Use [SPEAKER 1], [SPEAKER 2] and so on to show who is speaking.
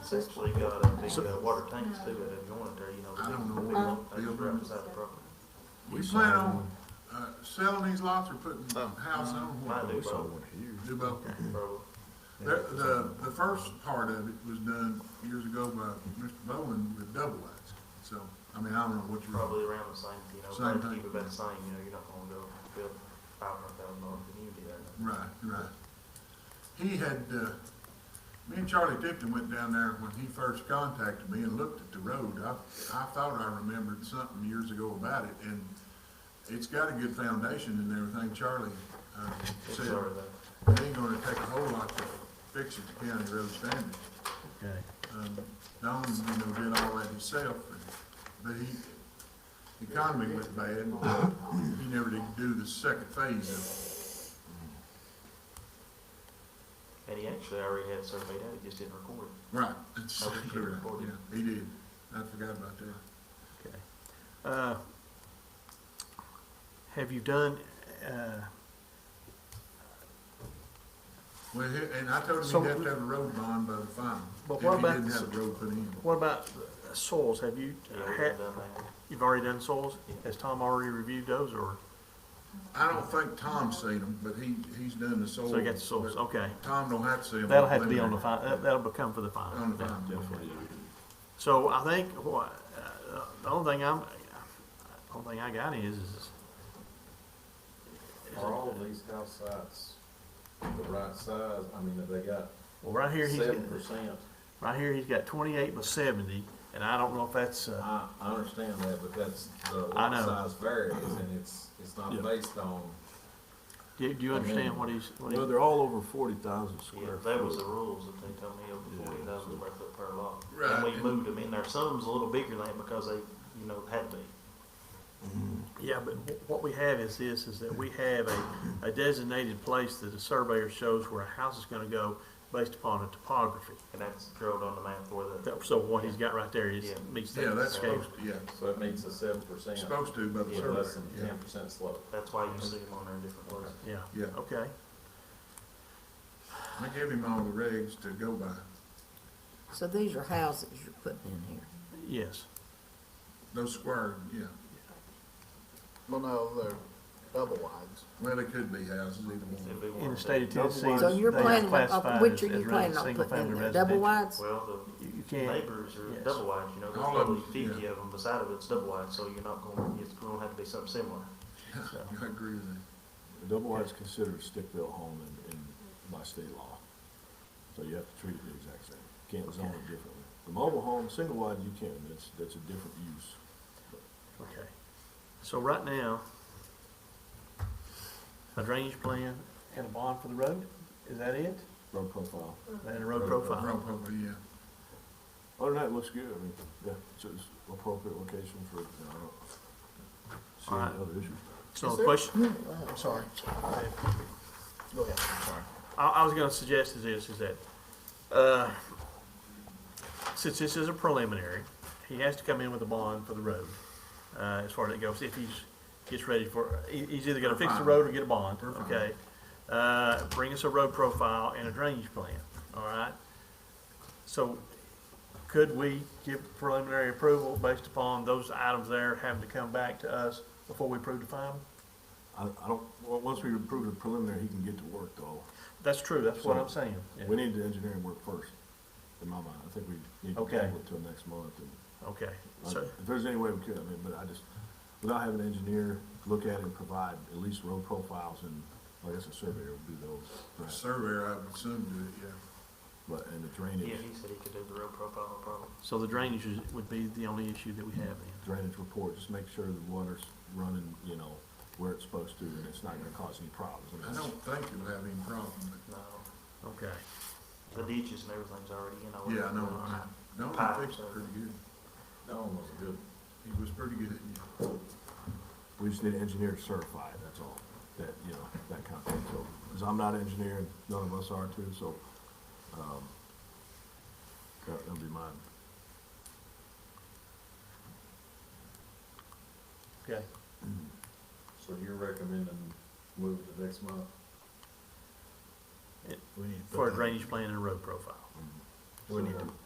[SPEAKER 1] It's actually got a big uh, water tanks too that have joined there, you know.
[SPEAKER 2] I don't know
[SPEAKER 1] big
[SPEAKER 2] what
[SPEAKER 1] long tanks
[SPEAKER 2] building.
[SPEAKER 1] right beside the property.
[SPEAKER 2] We plan on, uh, selling these lots or putting
[SPEAKER 3] Oh.
[SPEAKER 2] house on
[SPEAKER 1] Might
[SPEAKER 2] one?
[SPEAKER 1] do both,
[SPEAKER 2] Do both.
[SPEAKER 1] probably.
[SPEAKER 2] The, the, the first part of it was done years ago by Mr. Bowen with double lots. So, I mean, I don't know what you're.
[SPEAKER 1] Probably around the same, you know,
[SPEAKER 2] Same
[SPEAKER 1] try to
[SPEAKER 2] thing.
[SPEAKER 1] keep it about the same, you know, you're not gonna go build five hundred thousand dollar community there.
[SPEAKER 2] Right, right. He had, uh, me and Charlie Tipton went down there when he first contacted me and looked at the road. I, I thought I remembered something years ago about it, and it's got a good foundation and everything. Charlie, uh,
[SPEAKER 1] It's
[SPEAKER 2] said
[SPEAKER 1] already there.
[SPEAKER 2] it ain't gonna take a whole lot to fix it to county road standards.
[SPEAKER 4] Okay.
[SPEAKER 2] Um, Don, you know, did all that himself, and- but he, the economy went bad, and he never did do the second phase of it.
[SPEAKER 1] And he actually already had surveyed out, he just didn't record it.
[SPEAKER 2] Right, that's
[SPEAKER 1] Oh, we
[SPEAKER 2] exactly
[SPEAKER 1] should
[SPEAKER 2] right,
[SPEAKER 1] record it.
[SPEAKER 2] yeah, he did, I forgot about that.
[SPEAKER 4] Okay. Uh, Have you done, uh,
[SPEAKER 2] Well, he- and I told him
[SPEAKER 4] So-
[SPEAKER 2] he'd have to have a road bond by the final,
[SPEAKER 4] But
[SPEAKER 2] if
[SPEAKER 4] what
[SPEAKER 2] he
[SPEAKER 4] about-
[SPEAKER 2] didn't have a road put in.
[SPEAKER 4] what about uh, soils? Have you, uh,
[SPEAKER 1] He already
[SPEAKER 4] had-
[SPEAKER 1] had done that.
[SPEAKER 4] you've already done soils?
[SPEAKER 1] Yeah.
[SPEAKER 4] Has Tom already reviewed those or,
[SPEAKER 2] I don't think Tom's seen them, but he, he's done the soil.
[SPEAKER 4] so you got the soils,
[SPEAKER 2] but
[SPEAKER 4] okay.
[SPEAKER 2] Tom don't have to see them.
[SPEAKER 4] That'll have to be on the fin, that- that'll become for the final.
[SPEAKER 2] On the final,
[SPEAKER 4] Yeah.
[SPEAKER 2] okay.
[SPEAKER 4] So I think what, uh, the only thing I'm, the only thing I got is, is.
[SPEAKER 5] Are all of these house sites the right size? I mean, have they got
[SPEAKER 4] Well, right here, he's,
[SPEAKER 5] seven
[SPEAKER 4] got-
[SPEAKER 5] percent?
[SPEAKER 4] right here, he's got twenty-eight by seventy, and I don't know if that's, uh,
[SPEAKER 5] I, I understand that, but that's, the
[SPEAKER 4] I
[SPEAKER 5] lot
[SPEAKER 4] know.
[SPEAKER 5] size varies and it's, it's
[SPEAKER 4] Yeah.
[SPEAKER 5] not based on,
[SPEAKER 4] do, do you
[SPEAKER 5] I
[SPEAKER 4] understand
[SPEAKER 5] mean,
[SPEAKER 4] what he's, what he?
[SPEAKER 3] Well, they're all over forty thousand
[SPEAKER 1] Yeah,
[SPEAKER 3] square.
[SPEAKER 1] that was the
[SPEAKER 3] foot.
[SPEAKER 1] rules that they told me over
[SPEAKER 3] Yeah,
[SPEAKER 1] forty thousand square foot per lot.
[SPEAKER 2] Right,
[SPEAKER 1] And we
[SPEAKER 2] and-
[SPEAKER 1] moved them in there, some's a little bigger than that because they, you know, had to be.
[SPEAKER 4] Yeah, but wh- what we have is this, is that we have a, a designated place that the surveyor shows where a house is gonna go based upon a topography.
[SPEAKER 1] And that's drilled on the map for the,
[SPEAKER 4] That- So what he's got right there is
[SPEAKER 1] Yeah.
[SPEAKER 4] meets
[SPEAKER 2] Yeah,
[SPEAKER 4] that
[SPEAKER 2] that's
[SPEAKER 4] scale.
[SPEAKER 2] supposed, yeah,
[SPEAKER 5] so it meets a seven percent.
[SPEAKER 2] supposed to by the
[SPEAKER 5] With less than
[SPEAKER 2] survey,
[SPEAKER 5] ten percent slope.
[SPEAKER 1] that's why you see them on there in different places.
[SPEAKER 4] Yeah,
[SPEAKER 2] yeah, yeah.
[SPEAKER 4] okay.
[SPEAKER 2] I gave him all the regs to go by,
[SPEAKER 6] So these are houses you're putting in here?
[SPEAKER 4] Yes,
[SPEAKER 2] those squared, yeah.
[SPEAKER 7] Well, no, they're double wides.
[SPEAKER 2] Well, they could be houses, either
[SPEAKER 1] If
[SPEAKER 2] one.
[SPEAKER 1] we
[SPEAKER 4] in the
[SPEAKER 1] wanted
[SPEAKER 4] state
[SPEAKER 1] to.
[SPEAKER 4] of Tennessee,
[SPEAKER 6] So
[SPEAKER 4] they
[SPEAKER 6] you're
[SPEAKER 4] are
[SPEAKER 6] planning, on-
[SPEAKER 4] classified
[SPEAKER 6] which
[SPEAKER 4] as,
[SPEAKER 6] are you
[SPEAKER 4] as re-
[SPEAKER 6] planning on
[SPEAKER 4] single
[SPEAKER 6] putting in
[SPEAKER 4] family
[SPEAKER 6] there, double
[SPEAKER 4] residential.
[SPEAKER 6] wides?
[SPEAKER 1] Well,
[SPEAKER 4] You you
[SPEAKER 1] the
[SPEAKER 4] can't,
[SPEAKER 1] neighbors are
[SPEAKER 4] Yes.
[SPEAKER 1] double wide, you know, there's
[SPEAKER 2] All of
[SPEAKER 1] probably
[SPEAKER 2] them,
[SPEAKER 1] fifty
[SPEAKER 2] yeah.
[SPEAKER 1] of them beside of it's double wide, so you're not going, it's going to have to be something similar.
[SPEAKER 2] I agree with that.
[SPEAKER 3] Double wide's considered a stick-built home in, in, by state law. So you have to treat it the exact same. Can't zone it differently. The mobile home, single wide, you can, that's, that's a different use.
[SPEAKER 4] okay. So right now, a drainage plan and a bond for the road, is that it?
[SPEAKER 3] Road profile.
[SPEAKER 4] And a road
[SPEAKER 3] Road
[SPEAKER 4] profile?
[SPEAKER 2] Road probably, yeah.
[SPEAKER 3] Other than that, it looks good. I mean, yeah, it's, it's appropriate location for, you know, I
[SPEAKER 4] Alright.
[SPEAKER 3] don't see any other issues.
[SPEAKER 4] So
[SPEAKER 6] Is
[SPEAKER 4] the
[SPEAKER 6] there-
[SPEAKER 4] question,
[SPEAKER 6] Wow.
[SPEAKER 7] Sorry. Go ahead, sorry.
[SPEAKER 4] I, I was gonna suggest is this, is that, uh, since this is a preliminary, he has to come in with a bond for the road, uh, as far as it goes, if he's, gets ready for, he, he's either gonna fix the road or get a bond,
[SPEAKER 2] We're fine.
[SPEAKER 4] okay? Uh, bring us a road profile and a drainage plan, all right? So, could we give preliminary approval based upon those items there having to come back to us before we approve the final?
[SPEAKER 3] I, I don't, well, once we approve the preliminary, he can get to work though.
[SPEAKER 4] That's true, that's what I'm saying.
[SPEAKER 3] We need the engineering work first, in my mind. I think we need to
[SPEAKER 4] Okay.
[SPEAKER 3] table it till next month and
[SPEAKER 4] Okay,
[SPEAKER 3] I-
[SPEAKER 4] so.
[SPEAKER 3] If there's any way we could, I mean, but I just, without having an engineer look at it and provide at least road profiles and, I guess a surveyor would do those, right?
[SPEAKER 2] Surveyor, I would assume, do it, yeah.
[SPEAKER 3] But, and the
[SPEAKER 1] Yeah,
[SPEAKER 3] drainage,
[SPEAKER 1] he said he could do the road profile, no problem.
[SPEAKER 4] So the drainage is- would be the only issue that we have then?
[SPEAKER 3] drainage report, just make sure the water's running, you know, where it's supposed to, and it's not gonna cause any problems. I mean,
[SPEAKER 2] I don't think you'll have any problem, but,
[SPEAKER 1] No,
[SPEAKER 4] Okay,
[SPEAKER 1] the ditches and everything's already, you know.
[SPEAKER 2] yeah, no, I, no, I think it's pretty good.
[SPEAKER 5] That one was good.
[SPEAKER 2] He was pretty good at it.
[SPEAKER 3] We just need an engineer to certify it, that's all, that, you know, that kind of thing, so, because I'm not an engineer, and none of us are too, so, um, that, that'll be mine.
[SPEAKER 4] okay.
[SPEAKER 5] So you're recommending move to next month?
[SPEAKER 3] We need to put
[SPEAKER 4] For a
[SPEAKER 3] that-
[SPEAKER 4] drainage plan and a road profile.
[SPEAKER 3] We need to